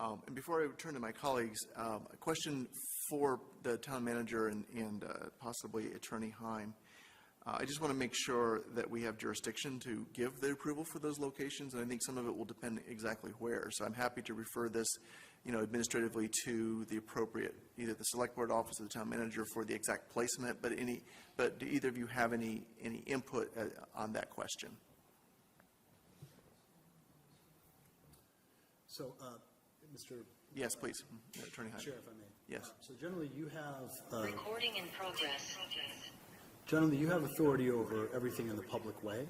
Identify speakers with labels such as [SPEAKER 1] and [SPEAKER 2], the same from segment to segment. [SPEAKER 1] Um, And before I turn to my colleagues, um, a question for the town manager and- and uh, possibly Attorney Heim. Uh, I just want to make sure that we have jurisdiction to give the approval for those locations, and I think some of it will depend exactly where. So I'm happy to refer this, you know, administratively to the appropriate, either the select board office or the town manager for the exact placement, but any, but do either of you have any, any input uh, on that question?
[SPEAKER 2] So, uh, Mr.
[SPEAKER 1] Yes, please, Mm-hmm. Attorney Heim.
[SPEAKER 2] Chair, if I may.
[SPEAKER 1] Yes.
[SPEAKER 2] Uh, So generally, you have, uh,
[SPEAKER 3] Recording in progress.
[SPEAKER 2] generally, you have authority over everything in the public way,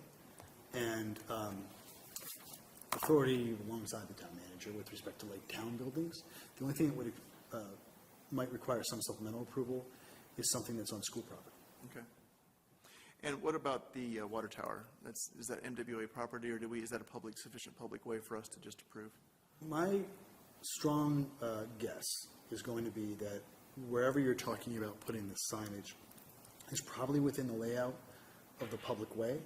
[SPEAKER 2] and um, authority alongside the town manager with respect to like town buildings. The only thing that would, uh, might require some supplemental approval is something that's on school property.
[SPEAKER 1] Okay. And what about the uh, water tower? That's, is that MWA property, or do we, is that a public, sufficient public way for us to just approve?
[SPEAKER 2] My strong uh, guess is going to be that wherever you're talking about putting the signage is probably within the layout of the public way,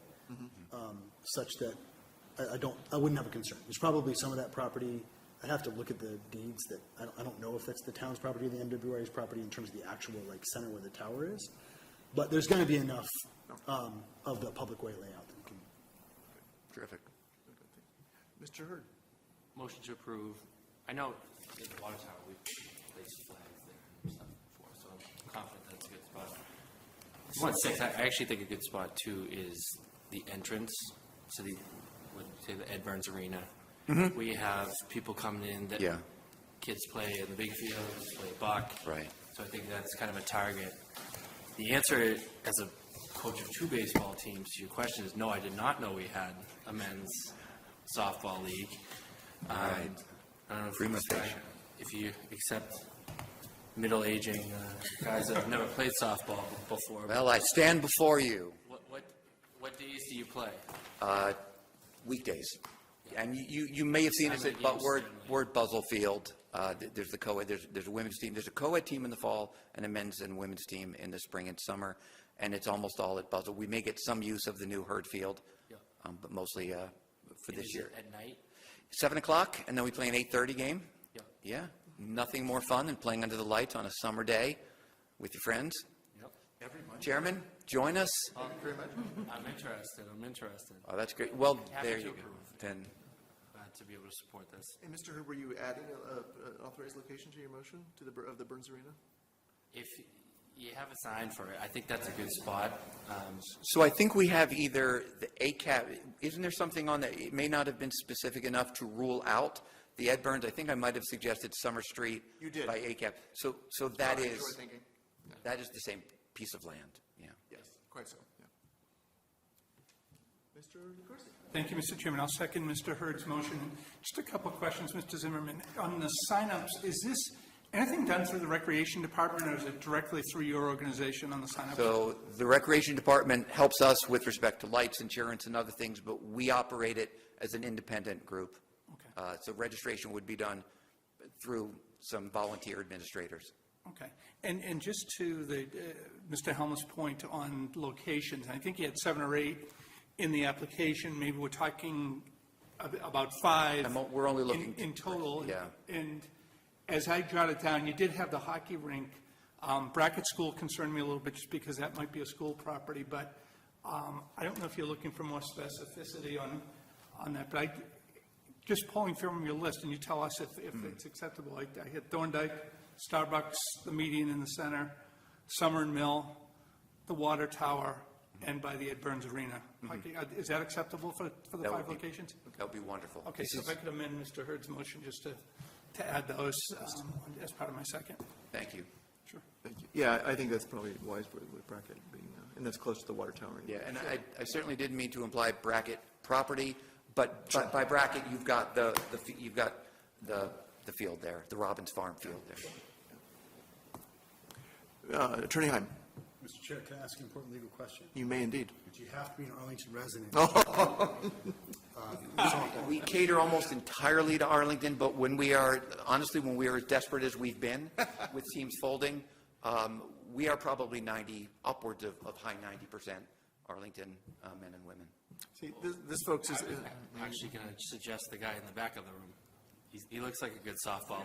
[SPEAKER 2] um, such that I, I don't, I wouldn't have a concern. There's probably some of that property, I'd have to look at the deeds that, I don't, I don't know if that's the town's property, or the MWRA's property in terms of the actual like center where the tower is. But there's going to be enough um, of the public way layout that you can
[SPEAKER 1] Terrific. Mr. Hurd?
[SPEAKER 4] Motion to approve. I know at the water tower, we've placed flags there and stuff before, so I'm confident that's a good spot. One six, I I actually think a good spot too is the entrance to the, what, say the Ed Burns Arena. We have people coming in that.
[SPEAKER 5] Mm-hmm. Yeah.
[SPEAKER 4] Kids play in the big fields, play buck.
[SPEAKER 5] Right.
[SPEAKER 4] So I think that's kind of a target. The answer as a coach of two baseball teams to your question is, no, I did not know we had a men's softball league. Um, I don't know if you,
[SPEAKER 5] Prima
[SPEAKER 4] expect-
[SPEAKER 5] facie.
[SPEAKER 4] if you accept middle-aging uh, guys that have never played softball before.
[SPEAKER 5] Well, I stand before you,
[SPEAKER 4] What, what, what days do you play?
[SPEAKER 5] uh, weekdays. And you- you, you may have seen us
[SPEAKER 4] I'm
[SPEAKER 5] at
[SPEAKER 4] a
[SPEAKER 5] Bu-
[SPEAKER 4] Yankee
[SPEAKER 5] Word,
[SPEAKER 4] fan.
[SPEAKER 5] Word Buzzell Field. Uh, th- There's the co-ed, there's, there's a women's team, there's a co-ed team in the fall and a men's and women's team in the spring and summer. And it's almost all at Buzzell. We may get some use of the new Herd Field,
[SPEAKER 4] Yeah.
[SPEAKER 5] um, but mostly uh, for
[SPEAKER 4] Is
[SPEAKER 5] this
[SPEAKER 4] it
[SPEAKER 5] year.
[SPEAKER 4] At night?
[SPEAKER 5] Seven o'clock, and then we play an eight-thirty game.
[SPEAKER 4] Yeah.
[SPEAKER 5] Yeah, nothing more fun than playing under the lights on a summer day with your friends.
[SPEAKER 4] Yep. Um,
[SPEAKER 5] Chairman, join us.
[SPEAKER 4] I'm interested, I'm interested
[SPEAKER 5] Oh, that's great. Well,
[SPEAKER 4] Happy
[SPEAKER 5] there
[SPEAKER 4] to
[SPEAKER 5] you go.
[SPEAKER 4] approve.
[SPEAKER 5] Then,
[SPEAKER 4] uh, to be able to support this.
[SPEAKER 1] And Mr. Hurd, were you adding an authorized location to your motion, to the, Bur- of the Burns Arena?
[SPEAKER 4] If you have a sign for it, I think that's a good spot. Um,
[SPEAKER 5] so I think we have either the ACAP, isn't there something on that? It may not have been specific enough to rule out the Ed Burns. I think I might have suggested Summer Street.
[SPEAKER 1] You did.
[SPEAKER 5] By ACAP. So, so that
[SPEAKER 1] Sorry,
[SPEAKER 5] is,
[SPEAKER 1] short thinking.
[SPEAKER 5] that is the same piece of land, yeah.
[SPEAKER 1] Yes, quite so, yeah. Mr. Corsi?
[SPEAKER 6] Thank you, Mr. Chairman. I'll second Mr. Hurd's motion. Just a couple of questions, Mr. Zimmerman. On the signups, is this anything done through the Recreation Department, or is it directly through your organization on the signups?
[SPEAKER 5] So the Recreation Department helps us with respect to lights, insurance, and other things, but we operate it as an independent group.
[SPEAKER 6] Okay.
[SPEAKER 5] Uh, So registration would be done through some volunteer administrators.
[SPEAKER 6] Okay. And, and just to the, uh, Mr. Helmut's point on locations, I think he had seven or eight in the application. Maybe we're talking ab- about five.
[SPEAKER 5] I'm o- we're only
[SPEAKER 6] in-
[SPEAKER 5] looking
[SPEAKER 6] In
[SPEAKER 5] to-
[SPEAKER 6] total.
[SPEAKER 5] yeah.
[SPEAKER 6] And as I jotted down, you did have the hockey rink. Um, Brackett School concerned me a little bit just because that might be a school property, but um, I don't know if you're looking for more specificity on, on that, but I, just pulling from your list, and you tell us if,
[SPEAKER 5] Hmm.
[SPEAKER 6] if it's acceptable. I I hit Thorndike, Starbucks, the median in the center, Summer and Mill, the Water Tower,
[SPEAKER 5] Hmm.
[SPEAKER 6] and by the Ed Burns Arena. Hockey- uh, Is that acceptable for, for the
[SPEAKER 5] That would
[SPEAKER 6] five
[SPEAKER 5] be-
[SPEAKER 6] locations?
[SPEAKER 5] That would be wonderful.
[SPEAKER 6] Okay, so if I could amend Mr. Hurd's motion just to, to add those um, as part of my second.
[SPEAKER 5] Thank you.
[SPEAKER 6] Sure.
[SPEAKER 1] Thank you. Yeah, I think that's probably wise with with bracket being, uh, and that's close to the water tower. anyway.
[SPEAKER 5] Yeah, and I I certainly didn't mean to imply bracket property, but but by bracket, you've got the, the f- you've got the, the field there, the Robbins Farm field there.
[SPEAKER 1] Uh, Attorney Heim,
[SPEAKER 2] Mr. Chair, can I ask an important legal question?
[SPEAKER 1] you may indeed.
[SPEAKER 2] Do you have to be an Arlington resident?
[SPEAKER 5] We cater almost entirely to Arlington, but when we are, honestly, when we are as desperate as we've been with teams folding, um, we are probably 90, upwards of, of high 90% Arlington uh, men and women.
[SPEAKER 1] See, this, this folks is, uh,
[SPEAKER 4] I'm actually going to suggest the guy in the back of the room. He's- He looks like a good softball